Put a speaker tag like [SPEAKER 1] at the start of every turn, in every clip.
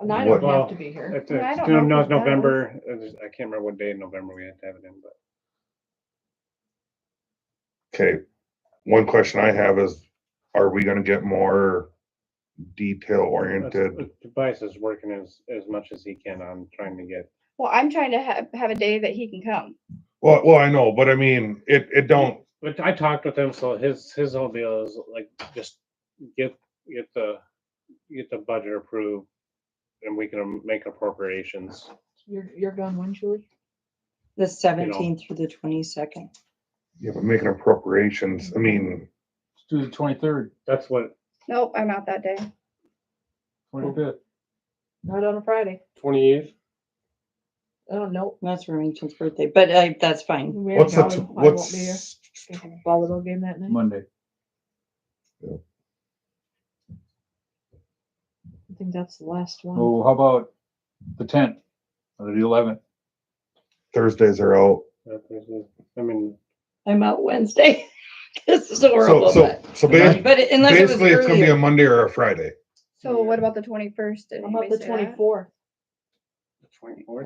[SPEAKER 1] And I don't
[SPEAKER 2] Well,
[SPEAKER 1] have to be here.
[SPEAKER 2] If
[SPEAKER 3] Yeah, I
[SPEAKER 2] it's,
[SPEAKER 3] don't
[SPEAKER 2] no, no,
[SPEAKER 3] know if
[SPEAKER 2] it's
[SPEAKER 3] that was-
[SPEAKER 2] November, it was- I can't remember what day in November we had to have it in, but
[SPEAKER 4] Okay, one question I have is, are we gonna get more detail
[SPEAKER 2] that's-
[SPEAKER 4] oriented?
[SPEAKER 2] uh, Tobias is working as, as much as he can on trying to get,
[SPEAKER 3] Well, I'm trying to have, have a day that he can come.
[SPEAKER 4] Well, well, I know, but I mean, it, it don't,
[SPEAKER 2] but I talked with him, so his, his whole deal is like, just get, get the, get the budget approved and we can make appropriations.
[SPEAKER 1] You're, you're gone when, Julie?
[SPEAKER 5] The seventeenth through the twenty-second.
[SPEAKER 4] you know, making appropriations, I mean,
[SPEAKER 6] Let's do the twenty-third,
[SPEAKER 2] That's what,
[SPEAKER 3] Nope, I'm out that day.
[SPEAKER 6] twenty-fifth.
[SPEAKER 4] Oh.
[SPEAKER 1] Not on a Friday.
[SPEAKER 7] Twenty-eighth?
[SPEAKER 1] Oh, no.
[SPEAKER 5] That's Remington's birthday, but I, that's fine.
[SPEAKER 1] we
[SPEAKER 4] what's
[SPEAKER 1] ain't
[SPEAKER 4] that,
[SPEAKER 1] going. I won't be here.
[SPEAKER 4] what's,
[SPEAKER 1] We have a Volleyball game that night.
[SPEAKER 6] Monday.
[SPEAKER 1] I think that's the last one.
[SPEAKER 6] Oh, how about the tenth or the eleventh?
[SPEAKER 4] Thursdays are out.
[SPEAKER 2] Uh, I mean,
[SPEAKER 5] I'm out Wednesday. This is horrible,
[SPEAKER 4] So, so, so
[SPEAKER 5] but,
[SPEAKER 4] ba-
[SPEAKER 5] but it- unless it was
[SPEAKER 4] basically, it's gonna be a
[SPEAKER 5] earlier.
[SPEAKER 4] Monday or a Friday,
[SPEAKER 3] So what about the twenty-first?
[SPEAKER 1] How about the twenty-fourth?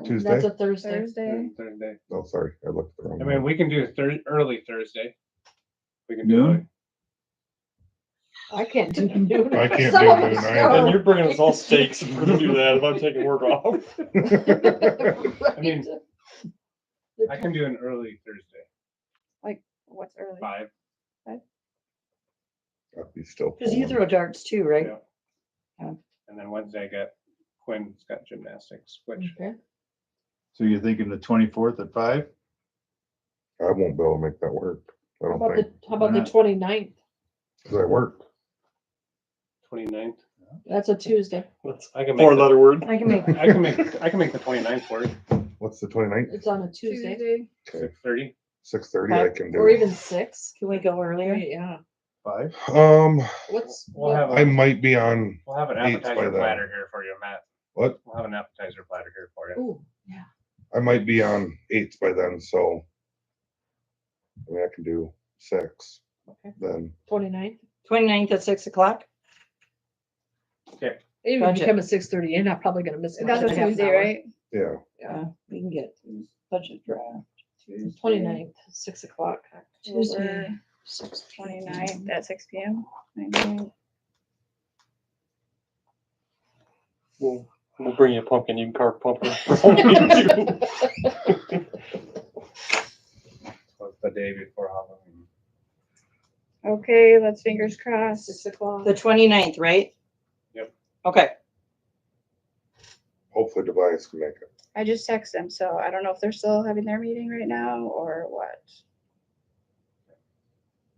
[SPEAKER 4] Tues-
[SPEAKER 1] That's
[SPEAKER 4] Tuesday?
[SPEAKER 1] a Thursday.
[SPEAKER 2] Mm-hmm.
[SPEAKER 3] Thursday.
[SPEAKER 7] Third day.
[SPEAKER 4] oh, sorry, I looked at the wrong.
[SPEAKER 7] I
[SPEAKER 4] one.
[SPEAKER 7] mean, we can do Thurs early Thursday. We can
[SPEAKER 6] Noon?
[SPEAKER 7] do
[SPEAKER 1] I
[SPEAKER 7] it.
[SPEAKER 1] can't do noon.
[SPEAKER 4] I can't
[SPEAKER 1] Some
[SPEAKER 4] do
[SPEAKER 1] of
[SPEAKER 4] noon
[SPEAKER 1] us
[SPEAKER 4] either.
[SPEAKER 1] go.
[SPEAKER 4] Then
[SPEAKER 7] you're bringing us all steaks if we're gonna do that, if I'm taking work off. I mean, I can do an early Thursday,
[SPEAKER 3] What's early?
[SPEAKER 7] five.
[SPEAKER 4] That'd be still.
[SPEAKER 5] Cause you
[SPEAKER 4] pulling.
[SPEAKER 5] throw darts too, right?
[SPEAKER 7] Yeah.
[SPEAKER 5] Yeah.
[SPEAKER 7] And then Wednesday I got Quinn's got gymnastics, which
[SPEAKER 1] Okay.
[SPEAKER 6] So you're thinking the twenty-fourth at five?
[SPEAKER 4] I won't be able to make that work, I
[SPEAKER 1] How
[SPEAKER 4] don't
[SPEAKER 1] about
[SPEAKER 4] think,
[SPEAKER 1] the, how about
[SPEAKER 6] Why
[SPEAKER 1] the
[SPEAKER 6] not?
[SPEAKER 1] twenty-ninth?
[SPEAKER 4] cause I work.
[SPEAKER 2] 29th.
[SPEAKER 1] That's a Tuesday.
[SPEAKER 7] let's, I can make, the-
[SPEAKER 6] Four-letter word.
[SPEAKER 5] I can make,
[SPEAKER 7] I can make, I can make the 29th work,
[SPEAKER 4] What's the 29th?
[SPEAKER 1] It's on a Tuesday
[SPEAKER 4] Okay.
[SPEAKER 7] six thirty.
[SPEAKER 4] Six thirty, I
[SPEAKER 1] Five-
[SPEAKER 4] can
[SPEAKER 1] or
[SPEAKER 4] do.
[SPEAKER 1] even six.
[SPEAKER 5] can we go earlier?
[SPEAKER 1] Yeah.
[SPEAKER 6] Five?
[SPEAKER 4] Um,
[SPEAKER 1] What's,
[SPEAKER 7] We'll
[SPEAKER 1] what-
[SPEAKER 7] have,
[SPEAKER 4] I
[SPEAKER 7] a-
[SPEAKER 4] might be on,
[SPEAKER 7] we'll have an
[SPEAKER 4] Eats by
[SPEAKER 7] appetizer
[SPEAKER 4] then.
[SPEAKER 7] platter here for you, Matt.
[SPEAKER 4] What?
[SPEAKER 7] We'll have an appetizer platter here for you.
[SPEAKER 1] ooh, yeah.
[SPEAKER 4] I might be on eights by then, so. I mean, I can do six
[SPEAKER 1] Okay.
[SPEAKER 4] then.
[SPEAKER 1] Twenty-ninth.
[SPEAKER 5] Twenty-ninth at six o'clock?
[SPEAKER 1] Even if you
[SPEAKER 5] Budget.
[SPEAKER 1] come at six thirty, you're not probably gonna miss.
[SPEAKER 3] That's a Tuesday, right?
[SPEAKER 4] Yeah,
[SPEAKER 5] Yeah, we can get budget draft.
[SPEAKER 1] Twenty-ninth, six o'clock.
[SPEAKER 5] Tuesday.
[SPEAKER 3] Six twenty-nine at six P M. Nine
[SPEAKER 7] We'll, we'll bring you a pumpkin, you can carve pumpkin.
[SPEAKER 2] The day before Halloween.
[SPEAKER 3] Okay, let's fingers crossed.
[SPEAKER 1] Six o'clock.
[SPEAKER 5] The 29th, right?
[SPEAKER 2] Yep.
[SPEAKER 5] Okay,
[SPEAKER 4] hopefully Tobias can make it.
[SPEAKER 3] I just text them, so I don't know if they're still having their meeting right now or what.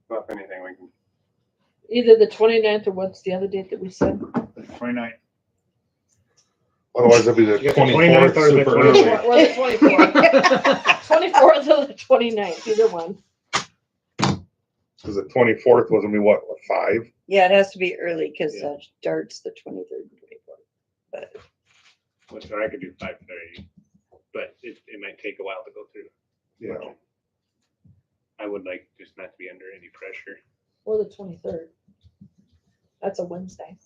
[SPEAKER 7] Well, If anything, we can,
[SPEAKER 1] Either the twenty-ninth or what's the other date that we said?
[SPEAKER 6] Twenty-ninth.
[SPEAKER 4] Otherwise, it'll be the
[SPEAKER 2] You got the
[SPEAKER 4] twenty-fourth
[SPEAKER 2] 29th or the
[SPEAKER 4] super
[SPEAKER 2] 24th.
[SPEAKER 4] early.
[SPEAKER 1] Or the twenty-fourth. Twenty-fourth or the twenty-ninth, either one.
[SPEAKER 4] Cause the twenty-fourth was gonna be what, what, five?
[SPEAKER 5] yeah, it has to be early because
[SPEAKER 2] Yeah.
[SPEAKER 5] darts the twenty-third and twenty-fourth.
[SPEAKER 2] which or I could do five thirty, but it, it might take a while to go through.
[SPEAKER 4] Yeah,
[SPEAKER 2] I would like just not to be under any pressure.
[SPEAKER 1] Or the twenty-third. That's a Wednesday.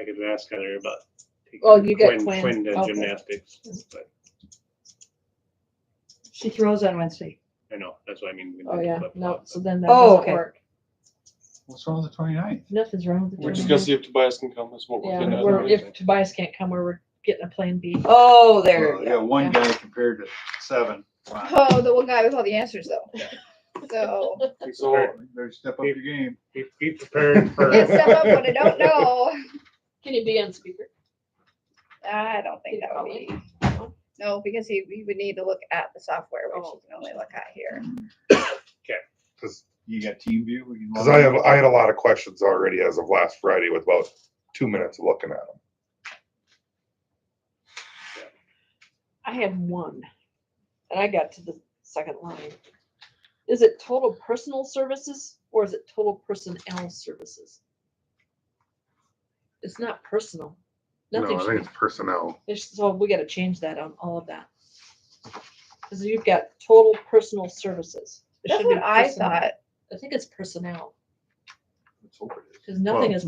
[SPEAKER 2] I could ask Heather about. taking
[SPEAKER 1] Oh, you get Quinn,
[SPEAKER 2] Quinn to
[SPEAKER 1] okay.
[SPEAKER 2] gymnastics, but
[SPEAKER 5] She throws on Wednesday.
[SPEAKER 2] I know, that's what I mean. we
[SPEAKER 1] Oh,
[SPEAKER 2] did
[SPEAKER 1] yeah,
[SPEAKER 2] flip
[SPEAKER 1] no,
[SPEAKER 2] flop,
[SPEAKER 1] so then that
[SPEAKER 5] Oh,
[SPEAKER 1] doesn't
[SPEAKER 5] okay.
[SPEAKER 1] work.
[SPEAKER 6] What's wrong with the twenty-ninth?
[SPEAKER 1] Nothing's wrong with the
[SPEAKER 7] we're just gonna see
[SPEAKER 1] twenty-ninth.
[SPEAKER 7] if Tobias can come, is what we're getting
[SPEAKER 1] Yeah,
[SPEAKER 7] at.
[SPEAKER 1] we're, if Tobias can't come, we're- we're getting a plan B.
[SPEAKER 5] Oh, there.
[SPEAKER 6] Yeah, one guy compared to seven. Fine.
[SPEAKER 3] Oh, the one guy with all the answers though. So,
[SPEAKER 2] but-
[SPEAKER 6] So,
[SPEAKER 2] So
[SPEAKER 6] better step up your game.
[SPEAKER 2] be, be prepared for,
[SPEAKER 3] can't step up when I don't know.
[SPEAKER 1] Can you be on speaker?
[SPEAKER 3] I don't think that would be, no, because he, he would need to look at the software, which you can only look at here.
[SPEAKER 4] cause,
[SPEAKER 6] You got team view? we can
[SPEAKER 4] 'cause
[SPEAKER 6] log
[SPEAKER 4] I
[SPEAKER 6] in.
[SPEAKER 4] have, I had a lot of questions already as of last Friday with about two minutes of looking at them.
[SPEAKER 1] I have one, and I got to the second line. Is it total personal services or is it total personnel services? It's not personal.
[SPEAKER 4] No,
[SPEAKER 1] Nothing,
[SPEAKER 4] I
[SPEAKER 1] should
[SPEAKER 4] think
[SPEAKER 1] be-
[SPEAKER 4] it's personnel.
[SPEAKER 1] it's- so we gotta change that on all of that. Cause you've got total personal services. It
[SPEAKER 3] That's
[SPEAKER 1] should be
[SPEAKER 3] what I
[SPEAKER 1] personnel.
[SPEAKER 3] thought.
[SPEAKER 1] I think it's personnel,
[SPEAKER 6] Let's hope it is.
[SPEAKER 1] cause nothing
[SPEAKER 4] Well,
[SPEAKER 1] is